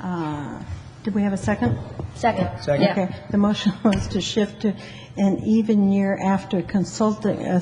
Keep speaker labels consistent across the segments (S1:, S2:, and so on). S1: Uh, Did we have a second?
S2: Second.
S3: Second.
S2: Yeah.
S1: Okay, the motion was to shift to an even year after consulting, uh,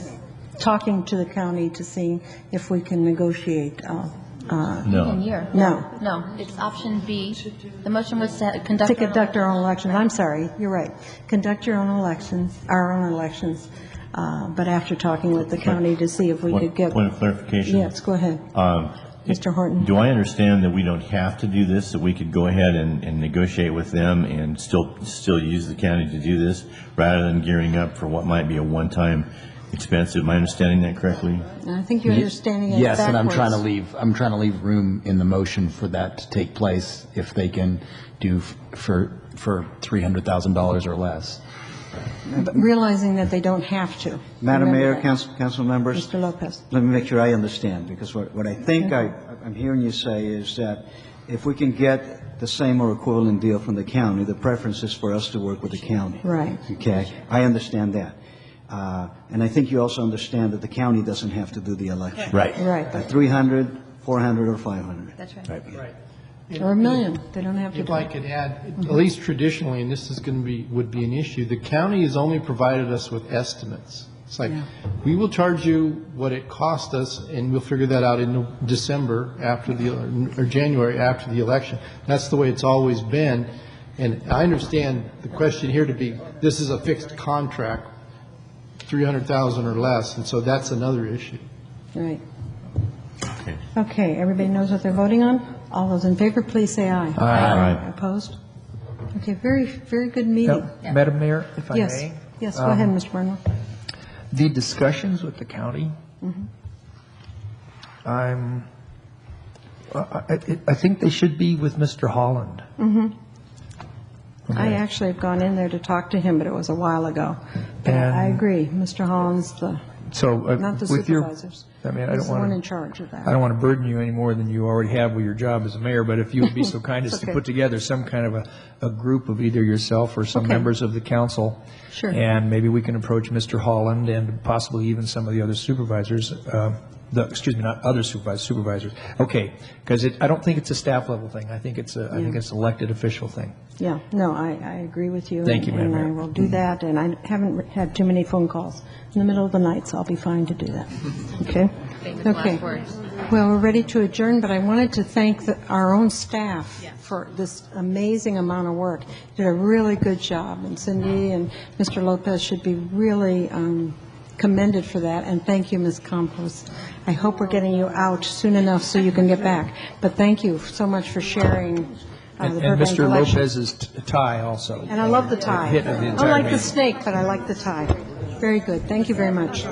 S1: talking to the county to see if we can negotiate. uh, uh,
S2: Even
S3: No.
S2: year.
S1: No.
S2: No, it's option B. The motion was to conduct.
S1: To conduct our own elections, I'm sorry, you're right. Conduct your own elections, our own elections, uh, but after talking with the county to see if we could
S3: Point
S1: get.
S3: point of clarification.
S1: Yes, go ahead.
S3: Um,
S1: Mr. Horton.
S3: Do I understand that we don't have to do this, that we could go ahead and, and negotiate with them and still, still use the county to do this, rather than gearing up for what might be a one-time expense? Am I understanding that correctly?
S1: And I think you're understanding it
S4: Yes, and I'm trying to
S1: backwards.
S4: leave, I'm trying to leave room in the motion for that to take place if they can do f- for, for $300,000 or less.
S1: But Realizing that they don't have to.
S5: Madam
S1: Remember
S5: Mayor,
S1: that.
S5: council, council members,
S1: Mr. Lopez.
S5: let me make sure I understand, because what, what I think I, I'm hearing you say is that if we can get the same or equivalent deal from the county, the preference is for us to work with the county.
S1: Right.
S5: Okay, I understand that. Uh, and I think you also understand that the county doesn't have to do the election.
S3: Right.
S5: Uh,
S1: Right,
S5: 300, 400, or 500.
S2: That's right.
S6: Right.
S1: or a million, they don't have to.
S6: If
S1: do
S6: I
S1: it.
S6: could add, at least traditionally, and this is going to be, would be an issue, the county has only provided us with estimates. It's like, we will charge you what it cost us, and we'll figure that out in December after the, or January after the election. That's the way it's always been. And I understand the question here to be, this is a fixed contract, 300,000 or less, and so that's another issue.
S1: Right. Okay, everybody knows what they're voting on? All those in favor, please say aye.
S3: Aye.
S1: Opposed? Okay, very, very good meeting.
S7: Madam Mayor, if I may? um,
S1: Yes, yes, go ahead, Mr. Burnwell.
S7: The discussions with the county,
S1: Mm-hmm.
S7: I'm, I- I I think they should be with Mr. Holland.
S1: Mm-hmm. I actually have gone in there to talk to him, but it was a while ago. But I
S7: And-
S1: agree, Mr. Holland's the,
S7: So uh,
S1: not the
S7: with your-
S1: supervisors.
S7: I mean, I
S1: He's
S7: don't
S1: the one in
S7: want to,
S1: charge of
S7: I don't
S1: that.
S7: want to burden you any more than you already have with your job as a mayor, but if you would be so kind as
S1: It's
S7: to
S1: okay.
S7: put together some kind of a, a group of either yourself or some
S1: Okay.
S7: members of the council.
S1: Sure.
S7: And maybe we can approach Mr. Holland and possibly even some of the other supervisors, uh, the, excuse me, not other supervisors, supervisors. Okay, because it, I don't think it's a staff level thing. I think it's a, I think it's an elected official thing.
S1: Yeah, no, I, I agree with you.
S7: Thank you, Madam Mayor.
S1: And I will do that, and I haven't had too many phone calls in the middle of the night, so I'll be fine to do that. Okay?
S2: Famous last
S1: Okay.
S2: words.
S1: Well, we're ready to adjourn, but I wanted to thank the- our own staff for this amazing amount of work. Did a really good job, and Cindy and Mr. Lopez should be really um, commended for that, and thank you, Ms. Campos. I hope we're getting you out soon enough so you can get back, but thank you so much for sharing uh, the
S7: And
S1: Burbank
S7: and Mr.
S1: election.
S7: Lopez's t- tie also.
S1: And I love the tie.
S7: Hit the
S1: I
S7: entire
S1: like the
S7: meeting.
S1: snake, but I like the tie. Very good. Thank you very much.